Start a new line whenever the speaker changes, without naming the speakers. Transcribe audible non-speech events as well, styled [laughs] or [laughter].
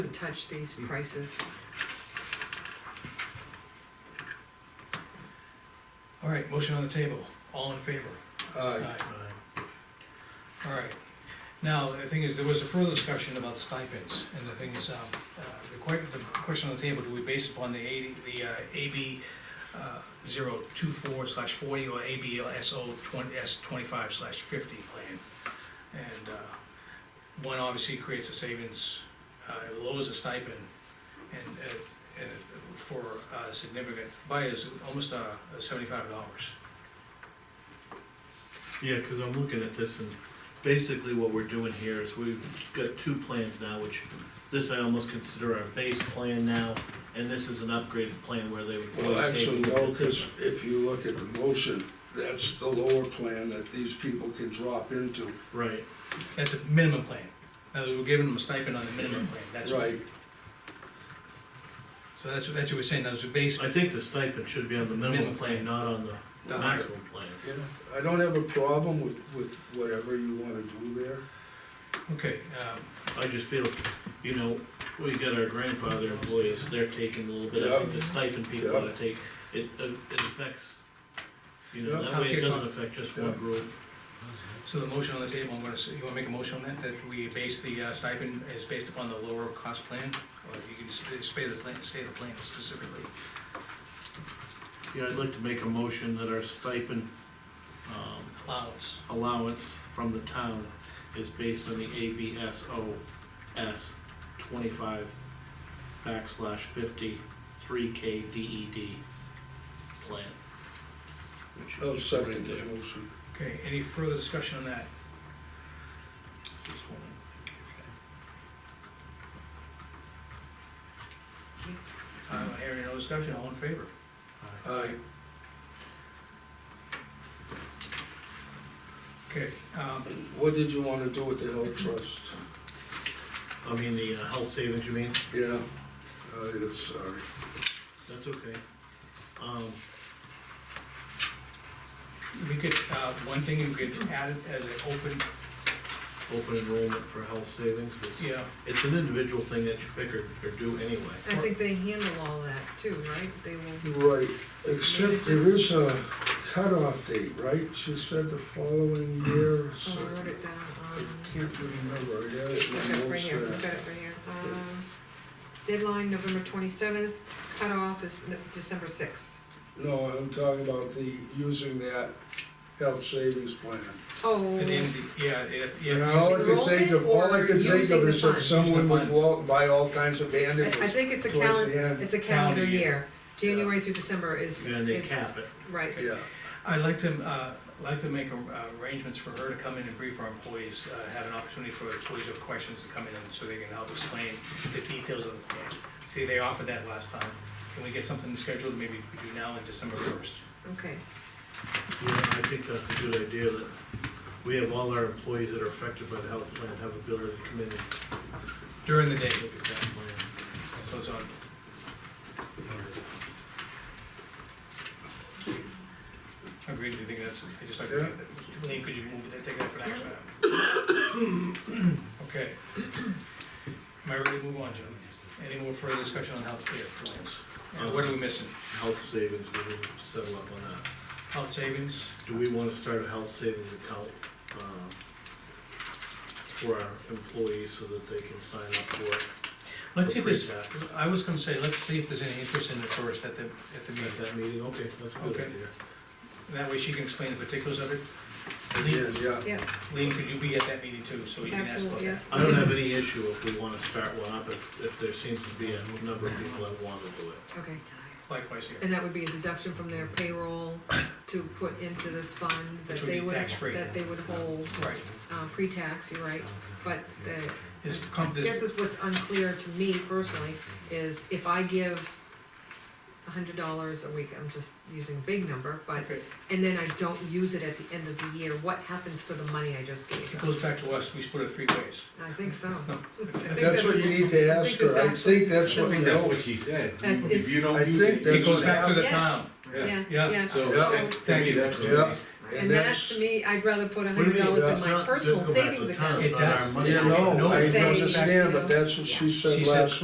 Wouldn't touch these prices.
All right, motion on the table, all in favor?
Aye.
All right, now, the thing is, there was a further discussion about stipends, and the thing is, um, uh, the que- the question on the table, do we base upon the eighty, the, uh, AB, uh, zero two four slash forty, or ABSO twenty, S twenty-five slash fifty plan? And, uh, one obviously creates a savings, uh, it lowers the stipend, and, uh, and for, uh, significant, by is almost, uh, seventy-five dollars.
Yeah, because I'm looking at this and basically what we're doing here is we've got two plans now, which this I almost consider our base plan now, and this is an upgraded plan where they.
Well, actually, no, because if you look at the motion, that's the lower plan that these people can drop into.
Right,
That's a minimum plan. Now, we're giving them a stipend on the minimum plan, that's what,
Right,
so that's, what- that's what we're saying, that's the base,
I think the stipend should be on the minimum
Minimum plan.
plan, not on the
No.
maximum plan.
yeah, I don't have a problem with, with whatever you wanna do there.
okay, um,
I just feel, you know, we got our grandfather employees, they're taking a little bit, I think the stipend people
Yeah.
ought to take, it, it affects, you
Yeah.
know, that way it
Okay,
doesn't affect just one
Yeah.
group.
so the motion on the table, I'm gonna say, you wanna make a motion on that, that we base the uh, stipend is based upon the lower cost plan? Or you can just say the plan, say the plan specifically.
Yeah, I'd like to make a motion that our stipend, um,
Allowance,
allowance from the town is based on the ABSO S twenty-five backslash fifty, three K DED plan. Which uh,
I'll
is
second
right there.
the motion.
okay, any further discussion on that?
This one.
Uh, hearing no discussion, all in favor?
Aye,
Okay, um,
what did you wanna do with the health trust?
I mean, the uh, health savings, you mean?
Yeah, uh, it's, sorry,
That's okay. Um,
we could, uh, one thing you could add it as an open,
open enrollment for health savings, it's,
yeah,
it's an individual thing that you pick or, or do anyway.
I think they handle all that too, right? They will, uh,
right, except there is a cutoff date, right? She said the following year, or
oh, I wrote
something.
it down,
I
um,
can't remember, yeah,
I've got
it
it right
was,
here, I've
uh,
got it right here. Um, Deadline, November twenty-seventh, cutoff is No- December sixth.
No, I'm talking about the, using that health savings plan.
Oh,
at the end, of the- yeah, if,
And
yeah,
all I could think of, all I could think of is that someone would go out and buy all kinds of
I, I
bandages
think it's a
towards
calendar,
the end.
it's a calendar
Calendar year.
year. January through December is,
And they
is,
cap it.
right.
Yeah,
I'd like to, uh, like to make uh, arrangements for her to come in and brief our employees, uh, have an opportunity for employees who have questions to come in so they can help explain the details of the plan. See, they offered that last time. Can we get something scheduled, maybe we do now in December first?
Okay,
Yeah, I think that's a good idea, that we have all our employees that are affected by the health plan have ability to come in and
During the day,
look at that plan.
so it's on. Agreed, you think that's, I just like, to- Lean, could you move, that- take that for an action item? Okay. Am I ready to move on, Jim? Any more further discussion on health care plans? And What are we missing?
Health savings, we will settle up on that.
Health savings?
Do we wanna start a health savings account, um, for our employees so that they can sign up for it?
Let's see if there's,
For pre-tax.
I was gonna say, let's see if there's any interest in it first at the, at the
At
meeting.
that meeting, okay, that's a good
Okay.
idea.
That way she can explain the particulars of it.
yeah,
Lean,
yeah.
yeah,
Lean, could you be at that meeting too, so you can ask about
absolutely, yeah.
that?
I don't have any issue if we wanna start one up, if, if there seems to be a number of people that wanna do it.
Okay.
Likewise here.
And that would be a deduction from their payroll to put into this fund that
Which would
they
be
would,
tax-free.
that they would hold,
Right.
uh, pre-tax, you're right. But the,
This com-
I guess
this,
is what's unclear to me personally, is if I give a hundred dollars a week, I'm just using a big number, but,
okay,
and then I don't use it at the end of the year, what happens to the money I just gave?
it goes back to us, we split it three ways.
I think
[laughs]
so. I think
That's what you need to ask her, I think that's
I
what, you
think that's
know,
what she said,
That is-
if you
I
don't use
think
it.
that's
It goes
what
back to the
Yes.
town.
Yeah.
Yeah,
Yeah.
yeah,
So,
so,
that- to
Thank
me,
you.
that's the
Yeah.
least,
And that's, to me, I'd rather put
What do you
hundred
mean?
dollars in
That's
my
not-
personal
just go back to
savings
the town.
account.
It does.
Not our money.
Yeah, no,
No,
I
it's a-
understand, but that's what she
She
said
said-
last